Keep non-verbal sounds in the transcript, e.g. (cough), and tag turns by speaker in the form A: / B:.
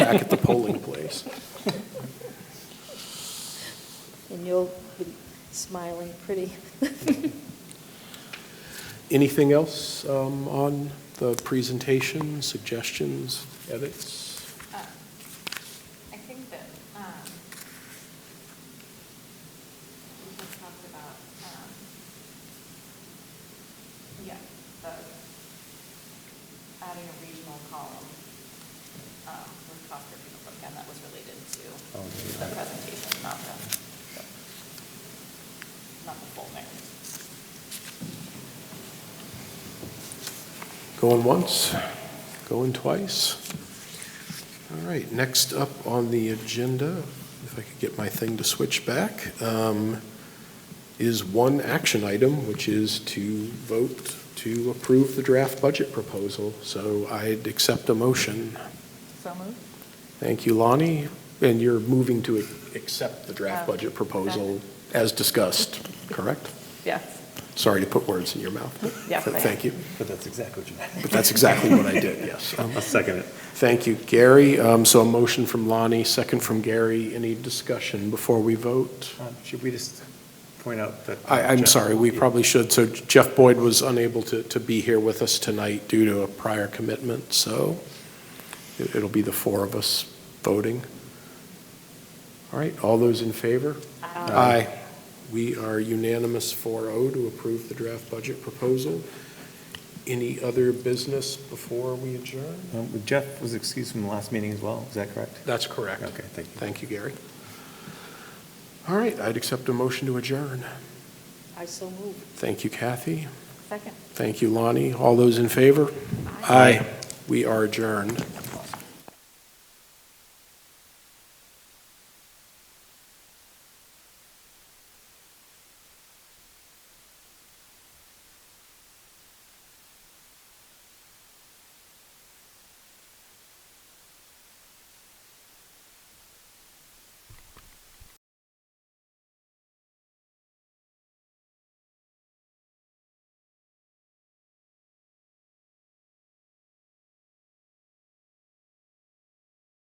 A: back at the polling place.
B: And you'll be smiling pretty. (laughs)
A: Anything else um, on the presentation, suggestions, edits?
C: Uh, I think that, um, we had talked about, um, yeah, the, adding a regional column, um, with cost per pupil program that was related to
A: Oh, yeah.
C: the presentation, not the, not the full narrative.
A: Going once, going twice. All right, next up on the agenda, if I could get my thing to switch back, um, is one action item, which is to vote to approve the draft budget proposal. So I'd accept a motion.
C: So moved?
A: Thank you, Lonnie. And you're moving to accept the draft
C: Oh.
A: budget proposal as discussed, correct?
C: Yes,
A: Sorry to put words in your mouth. but-
C: Yes, I am.
A: Thank you.
D: But that's exactly what you meant.
A: But that's exactly what I did, yes. Um,
D: (laughs) I'll second it.
A: Thank you, Gary. Um, So a motion from Lonnie, second from Gary. Any discussion before we vote?
D: Um, Should we just point out that?
A: I, I'm sorry, we probably should. So Jeff Boyd was unable to, to be here with us tonight due to a prior commitment, so it- it'll be the four of us voting. All right, all those in favor?
D: Uh,
A: Aye. We are unanimous 4-0 to approve the draft budget proposal. Any other business before we adjourn?
D: Um, Jeff was excused from the last meeting as well, is that correct?
A: That's correct.
D: Okay, thank you.
A: Thank you, Gary. All right, I'd accept a motion to adjourn.
B: I so move.
A: Thank you, Kathy.
C: second.
A: Thank you, Lonnie. All those in favor? Aye. We are adjourned.